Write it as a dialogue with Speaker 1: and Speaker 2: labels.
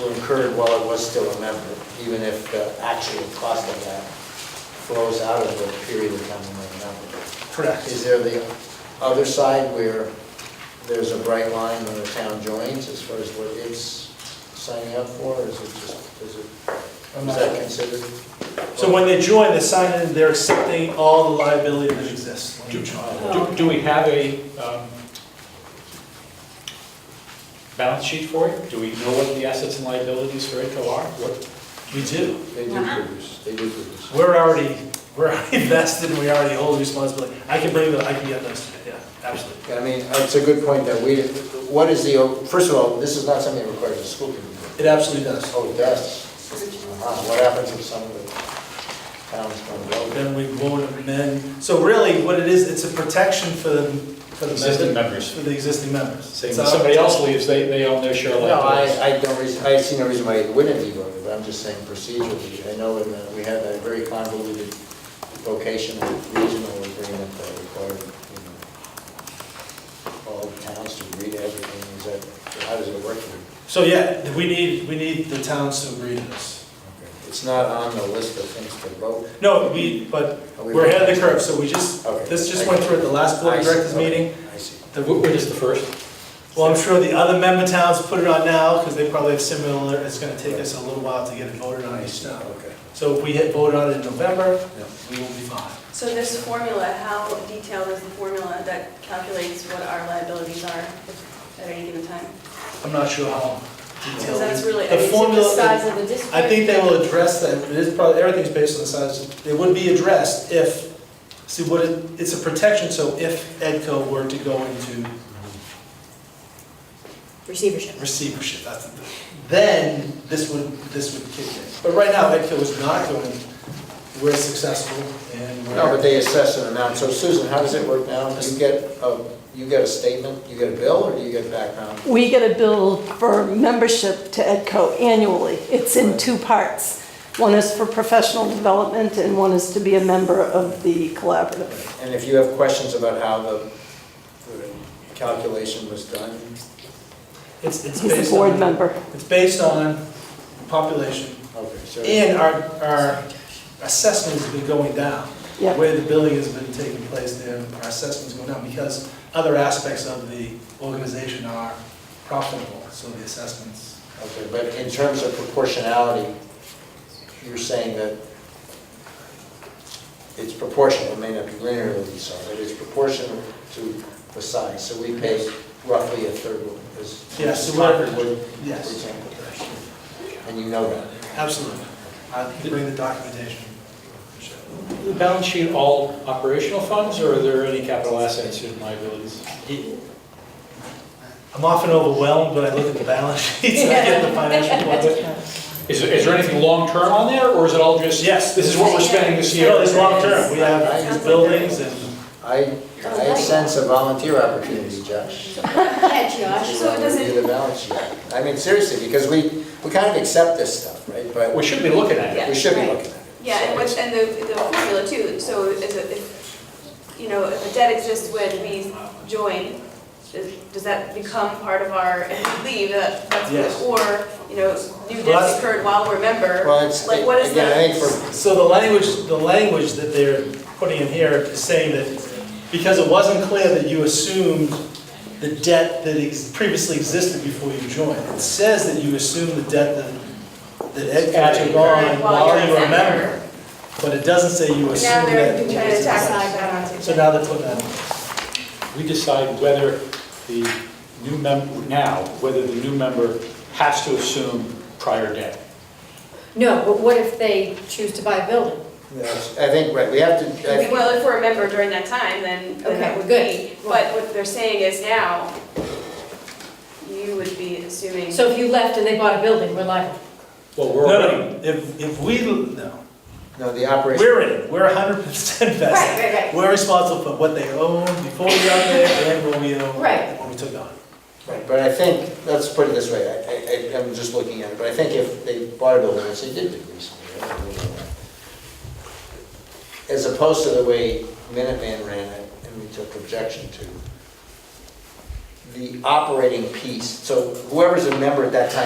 Speaker 1: were incurred while it was still a member, even if the actual cost of that flows out of the period of time we were a member. Is
Speaker 2: Correct.
Speaker 1: there the other side where there's a bright line when the town joins as far as what it's signing up for? Or is it just, is it,
Speaker 2: I'm
Speaker 1: is
Speaker 2: not-
Speaker 1: that considered?
Speaker 2: So when they join, they sign in, they're accepting all the liability that exists.
Speaker 3: Do- Do do we have a um, balance sheet for it? Do we know what the assets and liabilities for ITCO are? What-
Speaker 2: We do.
Speaker 1: They do produce, they do produce.
Speaker 2: We're already, we're already vested, and we already hold responsibility. I can bring that, I can get those, yeah, absolutely.
Speaker 1: I mean, it's a good point that we, what is the, first of all, this is not something that requires a school committee.
Speaker 2: It absolutely does.
Speaker 1: Oh, yes. uh, What happens if some of the towns don't go?
Speaker 2: Then we won't amend, so really, what it is, it's a protection for the, for the
Speaker 3: Existing
Speaker 2: member-
Speaker 3: members.
Speaker 2: For the existing members.
Speaker 3: Say
Speaker 2: It's
Speaker 3: When
Speaker 2: not-
Speaker 3: somebody else leaves, they, they own their share of
Speaker 1: No, I,
Speaker 3: liabilities.
Speaker 1: I don't, reas- I see no reason why it wouldn't be voted, but I'm just saying procedurally. I know in the- we had a very convoluted vocation with regional agreement that required, you know, all towns to read everything. Is that, how does it work? here?
Speaker 2: So yeah, we need, we need the towns to agree to this.
Speaker 1: It's not on the list of things to vote.
Speaker 2: No, we, but we're ahead of the curve, so we just,
Speaker 1: Okay.
Speaker 2: this just went through at the last board of directors meeting.
Speaker 1: I see.
Speaker 2: The-
Speaker 3: Wh- Which is the first?
Speaker 2: Well, I'm sure the other member towns put it on now, because they probably have similar, it's gonna take us a little while to get it voted on each town.
Speaker 1: Okay.
Speaker 2: So if we hit voted on it in November,
Speaker 1: Yeah.
Speaker 2: we will be fine.
Speaker 4: So this formula, how detailed is the formula that calculates what our liabilities are at any given time?
Speaker 2: I'm not sure how detailed.
Speaker 4: Because that's really,
Speaker 2: the
Speaker 4: I mean, it's
Speaker 2: formula-
Speaker 4: the size of the district.
Speaker 2: I think they will address that, it is probably, everything's based on the size, it would be addressed if, see, what it, it's a protection, so if EDCO were to go into
Speaker 5: receivership.
Speaker 2: receivership, that's, the- then this would, this would kick in. But right now, EDCO is not going, we're successful and we're.
Speaker 1: No, but they assess an amount, so Susan, how does it work now? You get a, you get a statement, you get a bill, or do you get background?
Speaker 6: We get a bill for membership to EDCO annually. It's in two parts. One is for professional development and one is to be a member of the collaborative.
Speaker 1: And if you have questions about how the the calculation was done,
Speaker 2: It's, it's
Speaker 6: He's a
Speaker 2: based
Speaker 6: board
Speaker 2: on-
Speaker 6: member.
Speaker 2: It's based on population,
Speaker 1: okay, so,
Speaker 2: and our, our assessment has been going down.
Speaker 6: Yeah.
Speaker 2: Where the billing has been taking place there, our assessment's going down, because other aspects of the organization are profitable, so the assessments.
Speaker 1: okay, but in terms of proportionality, you're saying that it's proportional, it may not be linearly so, but it's proportional to the size, so we pay roughly a third of this.
Speaker 2: Yes, so we're-
Speaker 1: Concord would, for
Speaker 2: Yes.
Speaker 1: example. And you know that.
Speaker 2: Absolutely. I can bring the documentation.
Speaker 3: The balance sheet, all operational funds, or are there any capital assets and liabilities?
Speaker 2: I'm often overwhelmed when I look at the balance sheets and I get the financial reports.
Speaker 3: Is, there- is there anything long-term on there, or is it all just?
Speaker 2: Yes.
Speaker 3: This is what we're spending this year?
Speaker 2: No, it's long-term, we have buildings and,
Speaker 1: I,
Speaker 4: Oh,
Speaker 1: I sense a volunteer opportunity, Josh.
Speaker 5: Yeah, Josh.
Speaker 4: So it doesn't-
Speaker 1: Review the balance sheet. I mean, seriously, because we, we kind of accept this stuff, right? But
Speaker 3: We should be looking at it.
Speaker 1: we should be
Speaker 5: right.
Speaker 1: looking at it.
Speaker 4: Yeah, and what's, and the, the formula too, so if, a- if, you know, if a debt exists when we join, does does that become part of our, if we leave, that- that's,
Speaker 2: Yes.
Speaker 4: or, you know, new
Speaker 2: Well,
Speaker 4: debts
Speaker 2: that's-
Speaker 4: incurred while we're a member,
Speaker 1: Well, it's,
Speaker 4: like what is
Speaker 1: again, I think
Speaker 4: that?
Speaker 1: for,
Speaker 2: So the language, the language that they're putting in here is saying that because it wasn't clear that you assumed the debt that ex- previously existed before you joined. It says that you assume the debt that, that Edco took on while you were a member, but it doesn't say you
Speaker 4: Now
Speaker 2: assume
Speaker 4: they're trying to tack
Speaker 2: that.
Speaker 4: that on.
Speaker 2: So now they're putting that in.
Speaker 3: We decide whether the new member, now, whether the new member has to assume prior debt.
Speaker 5: No, but what if they choose to buy a building?
Speaker 1: yes, I think, right, we have to, I think-
Speaker 4: Well, if we're a member during that time, then, then that
Speaker 5: Okay,
Speaker 4: would
Speaker 5: good.
Speaker 4: be, but what they're saying is now, you would be assuming.
Speaker 5: So if you left and they bought a building, we're liable.
Speaker 3: Well, we're
Speaker 2: No,
Speaker 3: already,
Speaker 2: no, if, if we, no,
Speaker 1: no, the operation,
Speaker 2: we're in, it. we're hundred percent vested.
Speaker 4: right, right.
Speaker 2: We're responsible for what they owned before we got there and what we own
Speaker 5: Right.
Speaker 2: when we took on.
Speaker 1: right, but I think, let's put it this way, I, I, I'm just looking at it, but I think if they bought a building, which they did do recently, I don't know. as opposed to the way Minuteman ran it, and we took objection to, the operating piece, so whoever's a member at that time